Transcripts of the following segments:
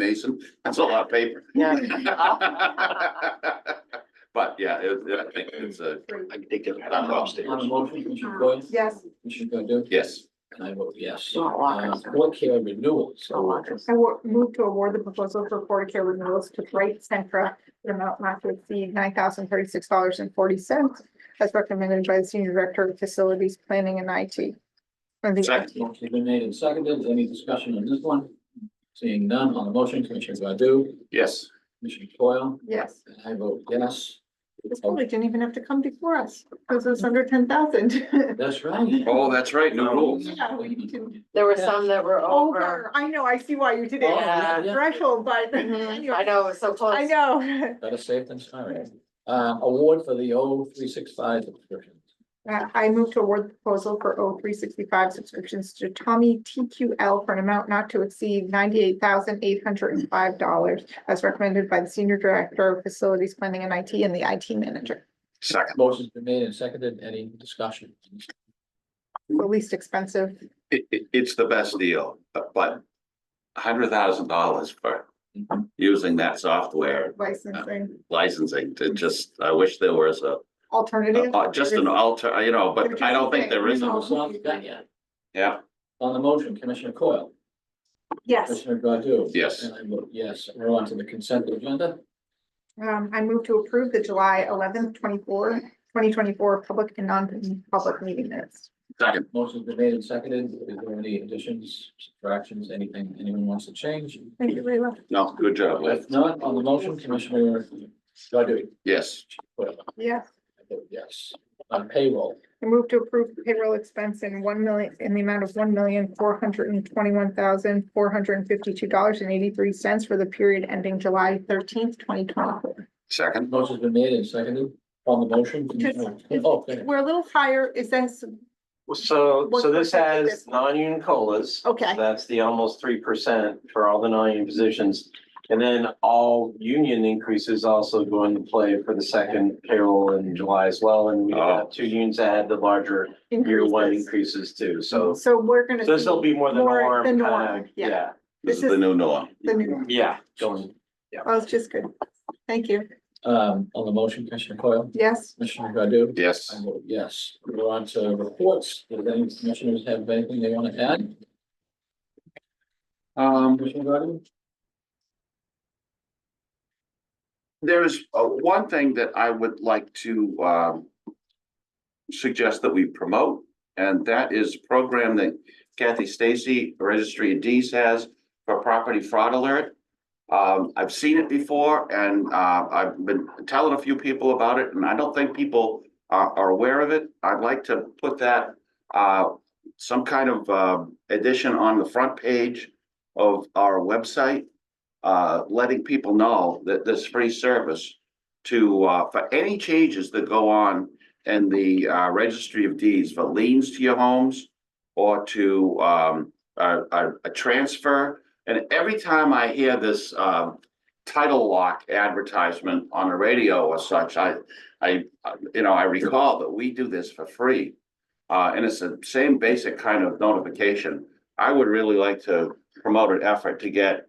Mason, that's a lot of paper. Yeah. But yeah, it, it- I think it's a, I think they'll have Um, them On upstairs. the motion, Commissioner Coyle? Yes. Commissioner Godu? yes, And I vote yes. Not lockers. Uh, What care renewals? Not lockers. I wa- move to award the proposal for Florida Care renewals to Bright Centra, the amount not to exceed nine thousand thirty-six dollars and forty cents, as recommended by the Senior Director of Facilities Planning and IT. Or the Second. Motion's been made and seconded. Any discussion on this one? Seeing none on the motion, Commissioner Godu? yes. Commissioner Coyle? Yes, And I vote yes. this probably didn't even have to come before us, because it's under ten thousand. That's right. Oh, that's right, new rules. Yeah, we didn't- There were some that were over. Over, I know, I see why you did it, Yeah. threshold, but. Mhm. I know, it was so close. I know. Better safe than sorry. Uh, award for the O three six five subscription. Uh, I move to award the proposal for O three sixty-five subscriptions to Tommy TQL for an amount not to exceed ninety-eight thousand eight hundred and five dollars as recommended by the Senior Director of Facilities Planning and IT and the IT Manager. Second. Motion's been made and seconded. Any discussion? The least expensive. It, it, it's the best deal, but a hundred thousand dollars for using that software Licensing licensing to just, I wish there was a, alternative. uh, just an alter, you know, but I don't think there is. a- No, it's not done yet. Yeah, On the motion, Commissioner Coyle, Yes, Commissioner Godu? Yes. And I vote yes. We're on to the consent agenda. um, I move to approve the July eleventh, 24, 2024 public and non-public meeting minutes. second, Motion's been made and seconded. Is there any additions, subtractions, anything anyone wants to change? Thank you, Leila. no, good job, Liz, If not, on the motion, Commissioner Godu? yes, Coyle, Yes. I vote yes. On payroll, I move to approve the payroll expense in one million, in the amount of one million, four hundred and twenty-one thousand, four hundred and fifty-two dollars and eighty-three cents for the period ending July thirteenth, twenty twenty-four. second, motion's been made and seconded. On the motion, Commissioner, oh, go ahead. We're a little higher, is this, Well, So, What so this percent is has this? non-union colas. okay, That's the almost three percent for all the non-union positions. And then all union increases also go into play for the second payroll in July as well. And we Oh. have two unions that had the larger year one increases. increases too. So So we're gonna. this will be more the More norm. the kinda, norm, yeah. Yeah, this is This the is- new norm. The new, yeah. Going, oh, it's just good, thank you, um, on the motion, Commissioner Coyle, yes, Commissioner Godu? Yes, I vote yes. We're on to reports. Does any commissioners have anything they want to add? Um, Commissioner Godu? there is uh, one thing that I would like to um, suggest that we promote, and that is a program that Kathy Stacy, Registry of Deeds has for property fraud alert. Um, I've seen it before, and uh, I've been telling a few people about it, and I don't think people are, are aware of it. I'd like to put that uh, some kind of uh, addition on the front page of our website uh, letting people know that this free service to, uh, for any changes that go on in the, uh, registry of deeds for liens to your homes or to, um, a, a, a transfer. And every time I hear this, um, title lock advertisement on the radio or such, I, I, I- you know, I recall that we do this for free. Uh, and it's the same basic kind of notification. I would really like to promote an effort to get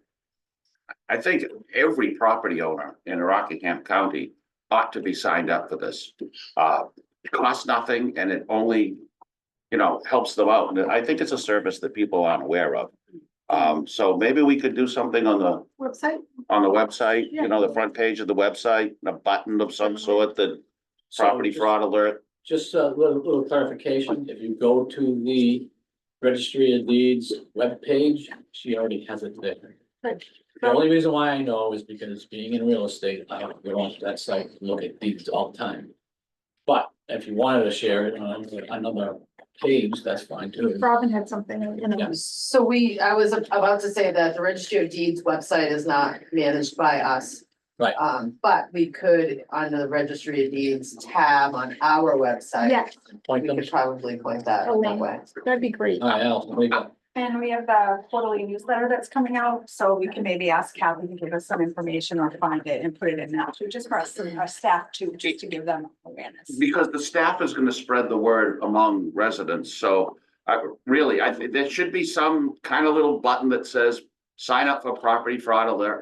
I think every property owner in Rockingham County ought to be signed up for this. Uh, it costs nothing and it only, you know, helps them out. And I think it's a service that people aren't aware of. Um, so maybe we could do something on the, website, on the website, you know, the Yeah. front page of the website, a button of some sort that property So, fraud alert. Just a little, little clarification. If you go to the registry of deeds webpage, she already has it there. Right. The only reason why I know is because being in real estate, I go onto that site, and look at deeds all the time. But if you wanted to share it on another page, that's fine too. Robin had something in the. So we, I was about to say that the Registry of Deeds website is not managed by us. Right. Um, but we could, on the Registry of Deeds tab on our website. Yeah, Point We them. could probably point that Oh, that way. that'd be great, All right, Al, what do you got? And we have the quarterly newsletter that's coming out, so we can maybe ask Kathy to give us some information or find it and put it in now, too, just for us, our staff to, just to give them awareness. Because the staff is gonna spread the word among residents, so I, really, I, think there should be some kind of little button that says sign up for property fraud alert